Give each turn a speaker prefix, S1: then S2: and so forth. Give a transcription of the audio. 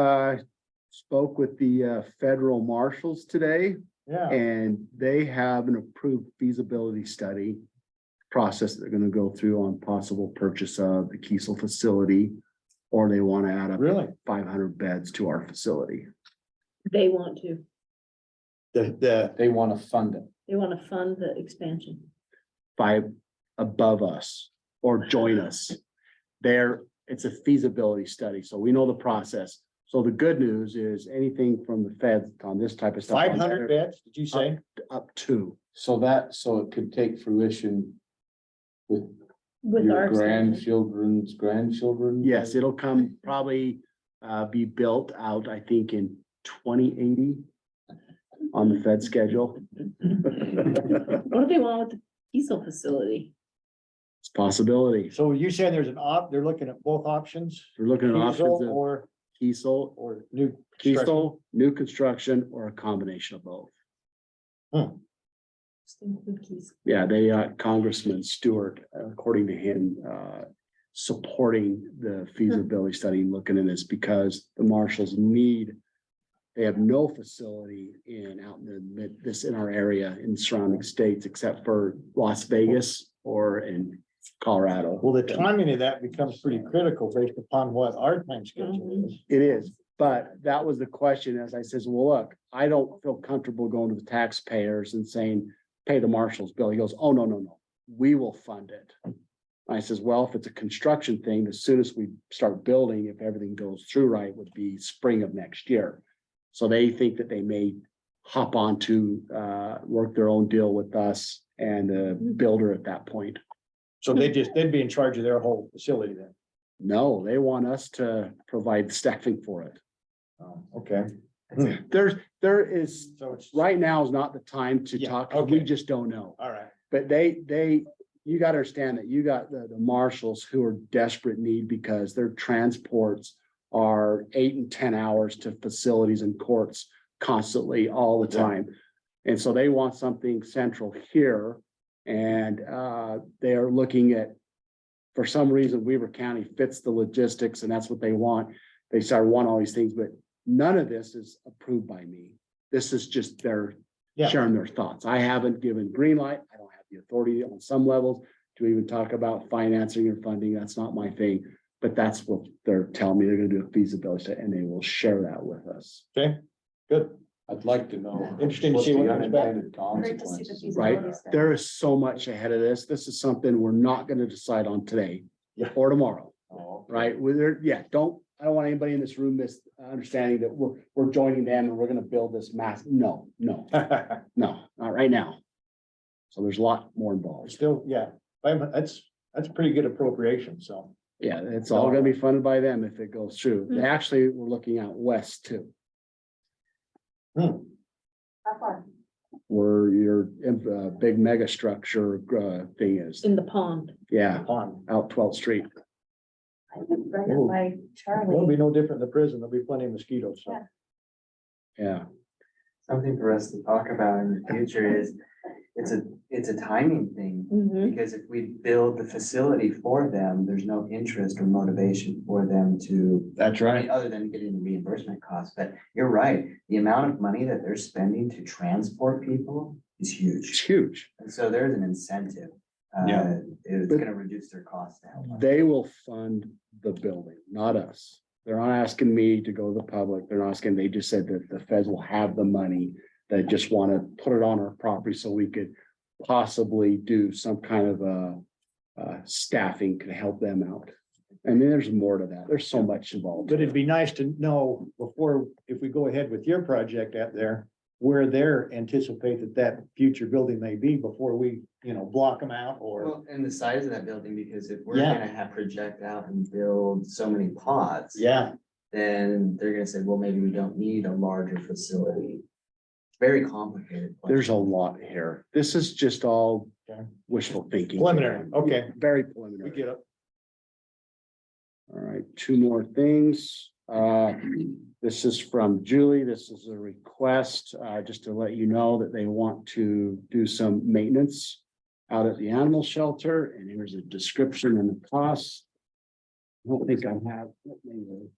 S1: uh, spoke with the uh, federal marshals today
S2: Yeah,
S1: and they have an approved feasibility study process they're gonna go through on possible purchase of the Kiesel facility, or they want to add up
S2: really?
S1: five hundred beds to our facility.
S3: They want to,
S4: The, the,
S2: They want to fund it.
S3: they want to fund the expansion.
S1: by above us or join us. There, it's a feasibility study, so we know the process. So the good news is anything from the feds on this type of stuff.
S2: Five hundred beds, did you say?
S1: Up to,
S5: So that, so it could take fruition with
S3: With
S5: your
S3: our. standards.
S5: grandchildren's grandchildren?
S1: yes, it'll come probably uh be built out, I think, in twenty eighty on the Fed schedule. It's
S3: What do they want with the diesel facility?
S1: a possibility.
S2: So you saying there's an op, they're looking at both options?
S1: We're looking at options
S2: Diesel
S1: of
S2: or,
S1: Kiesel,
S2: or new. construction?
S1: Kiesel, new construction, or a combination of both.
S3: Just include Keys.
S1: Yeah, they, uh, Congressman Stewart, according to him, uh, supporting the feasibility study, looking at this because the marshals need. They have no facility in out in the mid, this in our area in surrounding states except for Las Vegas or in Colorado.
S2: Well, the timing of that becomes pretty critical based upon what our time schedule is.
S1: It is, but that was the question, as I says, well, look, I don't feel comfortable going to the taxpayers and saying, pay the marshal's bill. He goes, oh, no, no, no, we will fund it. I says, well, if it's a construction thing, as soon as we start building, if everything goes through right, would be spring of next year. So they think that they may hop on to uh work their own deal with us and the builder at that point.
S2: So they just, they'd be in charge of their whole facility then.
S1: No, they want us to provide staffing for it.
S2: Oh, Okay,
S1: There's, there is
S2: so it's,
S1: right now is not the time to
S2: Yeah,
S1: talk, 'cause we
S2: okay.
S1: just don't know.
S2: all right.
S1: But they, they, you gotta understand that you got the, the marshals who are desperate need because their transports are eight and ten hours to facilities and courts constantly all the
S2: Yeah.
S1: time. And so they want something central here and, uh, they are looking at, for some reason Weaver County fits the logistics and that's what they want. They start wanting all these things, but none of this is approved by me. This is just their
S2: Yeah.
S1: sharing their thoughts. I haven't given green light. I don't have the authority on some levels to even talk about financing or funding. That's not my thing. But that's what they're telling me. They're gonna do a feasibility study and they will share that with us.
S2: Okay, good.
S5: I'd like to know.
S2: Interesting to see what
S5: what's the
S2: comes back.
S5: unintended
S6: Great to see the
S5: consequences.
S6: feasibility study.
S1: There is so much ahead of this. This is something we're not gonna decide on today
S2: Yeah.
S1: or tomorrow,
S5: Oh, okay.
S1: right? With there, yeah, don't, I don't want anybody in this room miss understanding that we're, we're joining them and we're gonna build this mass. No, no, no, not right now. So there's a lot more involved.
S2: Still, yeah, I'm- that's, that's pretty good appropriation, so.
S1: Yeah, it's all gonna be funded by them if it goes through. They Actually, we're looking out west too,
S2: hmm,
S6: How far?
S1: where your uh, big mega structure uh, thing is.
S3: In the pond.
S1: Yeah,
S2: on.
S1: out 12th Street.
S6: I would run
S2: Ooh.
S6: it by
S2: It'll
S6: Charlie.
S2: be no different in the prison. There'll be plenty of mosquitoes, so.
S6: Yeah.
S1: Yeah,
S7: something for us to talk about in the future is, it's a, it's a timing thing.
S3: Mm-hmm.
S7: Because if we build the facility for them, there's no interest or motivation for them to,
S5: That's
S7: I mean, other than getting the reimbursement costs, but you're right. The amount of money that they're spending to transport people is
S1: it's
S7: huge.
S1: huge.
S7: And so there's an incentive. uh,
S5: Yeah.
S7: It's
S1: But-
S7: gonna reduce their costs now.
S1: They will fund the building, not us. They're not asking me to go to the public. They're not asking, they just said that the feds will have the money. They just want to put it on our property so we could possibly do some kind of a. Uh, staffing could help them out. And then there's more to that. There's so much involved.
S2: But it'd be nice to know before, if we go ahead with your project out there, where they're anticipate that that future building may be before we, you know, block them out or.
S7: Well, and the size of that building, because if we're
S2: Yeah.
S7: gonna have project out and build so many pods.
S2: Yeah,
S7: then they're gonna say, well, maybe we don't need a larger facility. It's Very complicated. question.
S1: There's a lot here. This is just all
S2: Okay.
S1: wishful thinking.
S2: preliminary, okay,
S1: Very
S2: we
S1: preliminary.
S2: get it.
S1: All right, two more things. Uh, This is from Julie. This is a request, uh, just to let you know that they want to do some maintenance out at the animal shelter, and here's a description and the costs. I don't think I have. let me